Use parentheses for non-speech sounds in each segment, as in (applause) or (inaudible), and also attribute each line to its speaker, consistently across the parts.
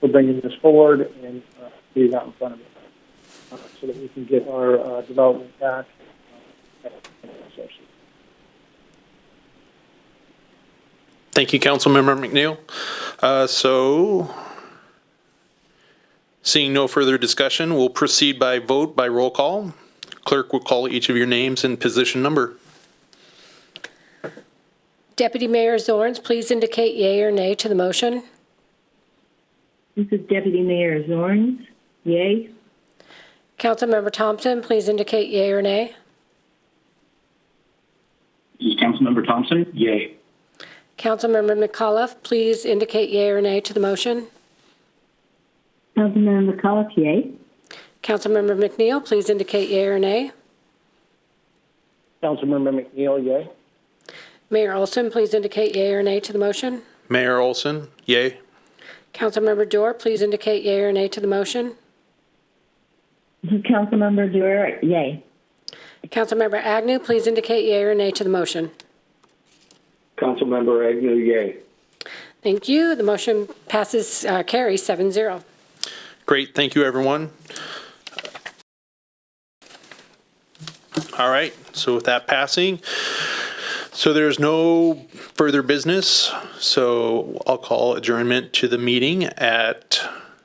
Speaker 1: for uh, bringing this forward and uh, getting out in front of it uh, so that we can get our uh, development back. Uh,
Speaker 2: Thank you, Councilmember McNeil. Uh, So, seeing no further discussion, we'll proceed by vote by roll call. Clerk will call each of your names and position number.
Speaker 3: Deputy Mayor Zorns, please indicate yea or nay to the motion.
Speaker 4: This is Deputy Mayor Zorns. Yay.
Speaker 3: Councilmember Thompson, please indicate yea or nay.
Speaker 5: This is Councilmember Thompson. Yay.
Speaker 3: Councilmember McAuliffe, please indicate yea or nay to the motion.
Speaker 4: Councilmember McCullough, yay.
Speaker 3: Councilmember McNeil, please indicate yea or nay.
Speaker 1: Councilmember McNeil, yay.
Speaker 3: Mayor Olson, please indicate yea or nay to the motion.
Speaker 2: Mayor Olson, yay.
Speaker 3: Councilmember Dorr, please indicate yea or nay to the motion.
Speaker 4: This is (laughs) Councilmember Dewar, yay.
Speaker 3: Councilmember Agnew, please indicate yea or nay to the motion.
Speaker 5: Councilmember Agnew, yay.
Speaker 3: Thank you. The motion passes, uh, carries seven zero.
Speaker 2: Great, thank you, everyone. All right, so with that passing, so there's no further business, so I'll call adjournment to the meeting at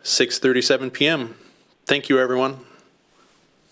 Speaker 2: 6:37 PM. Thank you, everyone.